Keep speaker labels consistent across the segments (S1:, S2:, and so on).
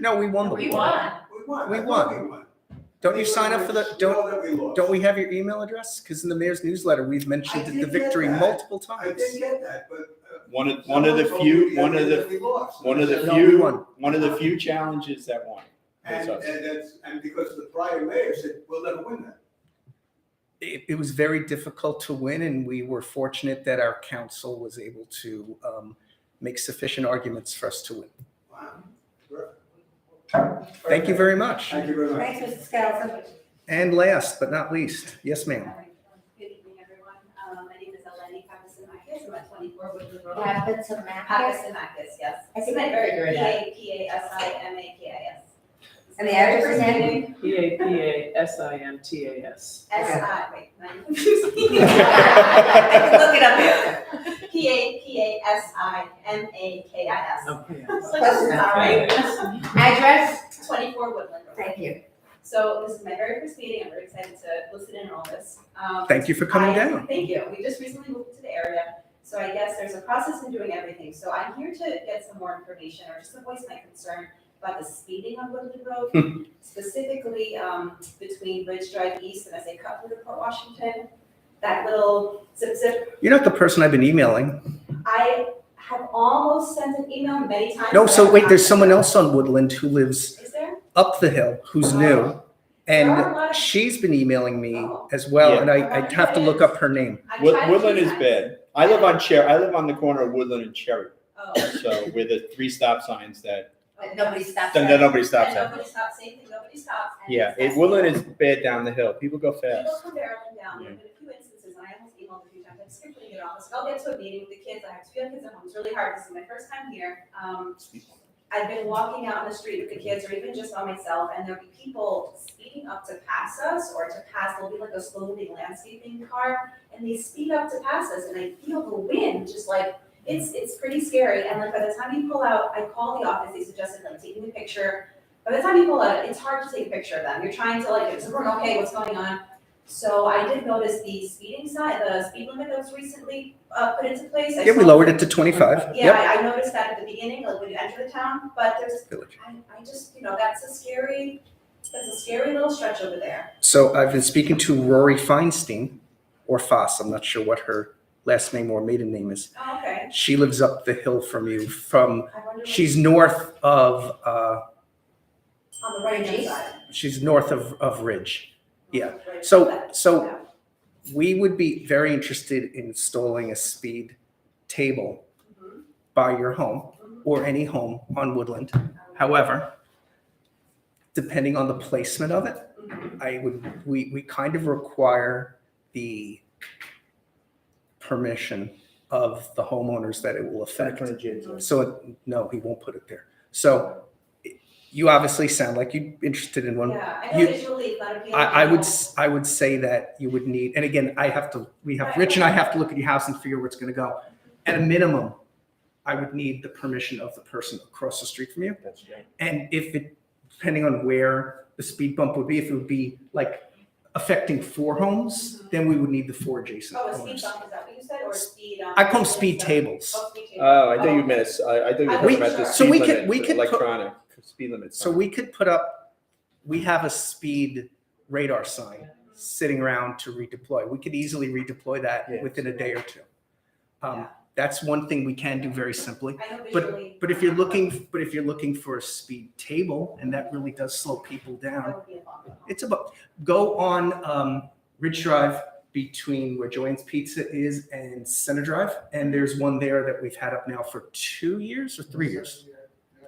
S1: No, we won the
S2: We
S1: war.
S2: won.
S3: We won.
S1: We
S3: I
S1: won.
S3: thought We won.
S1: Don't you sign up for the, don't,
S3: Sure that we lost.
S1: don't we have your email address? Because in the mayor's newsletter, we've mentioned
S3: I
S1: the
S3: did get
S1: victory
S3: that.
S1: multiple
S3: I
S1: times.
S3: didn't get that, but. uh,
S4: One of, one of the
S3: someone told me
S4: few,
S3: the
S4: one
S3: other
S4: of
S3: day
S4: the,
S3: that We lost.
S4: one of the
S1: No, we
S4: few,
S1: won.
S4: one of the few challenges that won.
S3: And,
S4: That's us.
S3: and that's, and because the prior mayor said, we'll never win that.
S1: It, it was very difficult to win, and we were fortunate that our council was able to um, make sufficient arguments for us to win.
S3: Wow. Sure.
S1: Thank you very much.
S3: Thank you very much.
S2: Thanks, Mr. Scalzo.
S1: And last but not least, yes,
S5: All
S1: ma'am.
S5: right. Good evening, everyone. Um, My name is Eleni Papasanakis, I'm at 24 Woodland Road.
S2: Happens to Matt.
S5: Papasanakis, yes.
S2: I think I'm very good at that.
S5: P-A-P-A-S-I-M-A-K-I-S.
S2: And the address is
S5: First
S6: P A P A S I M T A S.
S5: S-I, wait, no, I'm confusing.
S2: I can look it up here.
S5: P-A-P-A-S-I-M-A-K-I-S.
S6: Okay.
S5: I was like, this is not right.
S2: Address?
S5: 24 Woodland Road.
S2: Thank you.
S5: So this is my very first meeting, I'm very excited to listen in on all this. Um,
S1: Thank you for coming
S5: I-
S1: down.
S5: Thank you. We just recently moved to the area, so I guess there's a process in doing everything. So I'm here to get some more information or just to voice my concern about the speeding on Woodland
S1: Hmm.
S5: Road, specifically um, between Ridge Drive East and as they cut through to Port Washington. That little zip zip.
S1: You're not the person I've been emailing.
S5: I have almost sent an email many times.
S1: No,
S5: but
S1: so
S5: I've
S1: wait,
S5: not-
S1: there's someone else on Woodland who lives
S5: Is there?
S1: up the hill who's new. And she's been emailing me as well, and I, I'd have to look up her name.
S5: I've
S4: Wood-
S5: tried a
S4: Woodland
S5: few
S4: is
S5: times.
S4: bad. I live on Cherry, I live on the corner of Woodland and Cherry.
S5: Oh,
S4: So with the three stop signs that,
S2: But nobody stops.
S4: that
S2: there.
S4: nobody stops
S5: and
S4: at.
S5: nobody stops, same thing, nobody stops. and
S4: Yeah,
S5: it's
S4: it,
S5: that-
S4: Woodland is bad down the hill. People go
S5: People
S4: fast.
S5: come barreling down,
S4: Yeah.
S5: there've been a few instances, and I almost emailed a few times, I'm scribbling it all, so I'll get to a meeting with the kids, I have two young kids at home, it's really hard, this is my first time here. Um, I've been walking out on the street with the kids, or even just by myself, and there'll be people speeding up to pass us, or to pass, there'll be like a slow moving landscaping car, and they speed up to pass us, and I feel the wind, just like, it's, it's pretty scary, and like, by the time you pull out, I call the office, they suggested like taking a picture. By the time you pull out, it's hard to take a picture of them, you're trying to like, it's, okay, what's going on? So I did notice the speeding sign, the speed limit that was recently uh, put into place. I
S1: Yeah, we
S5: saw-
S1: lowered it to 25.
S5: Yeah,
S1: Yep.
S5: I I noticed that at the beginning, like when you enter the town, but there's,
S1: Village.
S5: I, I just, you know, that's a scary, that's a scary little stretch over there.
S1: So I've been speaking to Rory Feinstein, or Foss, I'm not sure what her last name or maiden name is.
S5: Oh, okay.
S1: She lives up the hill from you, from,
S5: I wonder. what-
S1: she's north of, uh,
S5: On the right hand
S2: Jeez.
S5: side.
S1: she's north of, of Ridge. Yeah.
S5: Right
S1: So,
S5: side.
S1: so
S5: Yeah.
S1: we would be very interested in installing a speed table
S5: Mhm.
S1: by your home or any home on Woodland. However, depending on the placement of it,
S5: Mhm.
S1: I would, we, we kind of require the permission of the homeowners that it will affect. So, it- no, he won't put it there. So you obviously sound like you're interested in one.
S5: Yeah, I
S1: you-
S5: know visually it's not appealing.
S1: I, I would,
S5: at all.
S1: s- I would say that you would need, and again, I have to, we have,
S5: Right.
S1: Rich and I have to look at your house and figure where it's gonna go. At a minimum, I would need the permission of the person across the street from you.
S4: That's right.
S1: And if it, depending on where the speed bump would be, if it would be like affecting four homes, then we would need the four adjacent
S5: Oh, a speed
S1: homes.
S5: bump, is that what you said, or speed? um,
S1: I call them speed
S5: yeah.
S1: tables. Uh,
S5: Oh, speed table.
S4: Oh, I thought you meant, I, I thought you were talking about the
S1: So
S4: speed
S1: we could-
S4: limit,
S1: we
S4: the
S1: could put-
S4: electronic speed limit.
S1: So
S4: sign.
S1: we could put up, we have a speed radar sign
S5: Mm-hmm.
S1: sitting around to redeploy. We could easily redeploy that
S4: Yeah.
S1: within a day or two.
S5: Yeah.
S1: Um, That's one thing we can do very simply.
S5: I know visually.
S1: But if you're looking, but if you're looking for a speed table, and that really does slow people down,
S5: That would be a long one.
S1: it's about, go on um, Ridge Drive between where Joanne's Pizza is and Center Drive, and there's one there that we've had up now for two years or three years.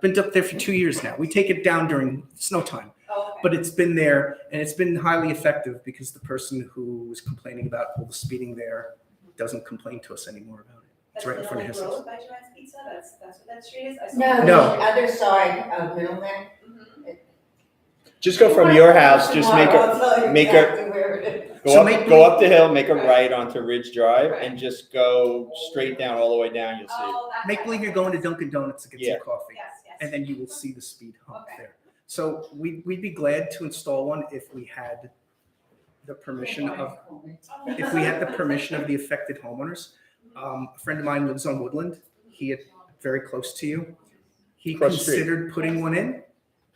S1: Been up there for two years now. We take it down during snow time
S5: Oh, okay.
S1: but it's been there and it's been highly effective because the person who was complaining about all the speeding there doesn't complain to us anymore about it.
S5: That's
S1: right in front of
S5: Middle
S1: your
S5: Road by Joanne's Pizza, that's, that's what that street is? I saw-
S2: No, the
S1: No.
S2: other side of Middleman.
S5: Mhm.
S4: Just go from your house, just make a, make a-
S2: a.
S1: So
S4: go
S1: make-
S4: up, go up the hill, make a right onto Ridge Drive and just go straight down, all the way down, you'll see. it.
S5: Oh, that.
S1: Make believe you're going to Dunkin' Donuts to get
S4: Yeah.
S1: some coffee.
S5: Yes, yes.
S1: And then you will see the speed hump
S5: Okay.
S1: there. So we, we'd be glad to install one if we had the permission of, if we had the permission of the affected homeowners. Um, a friend of mine lives on Woodland. He had very close to you. He
S4: Across the street.
S1: considered putting one in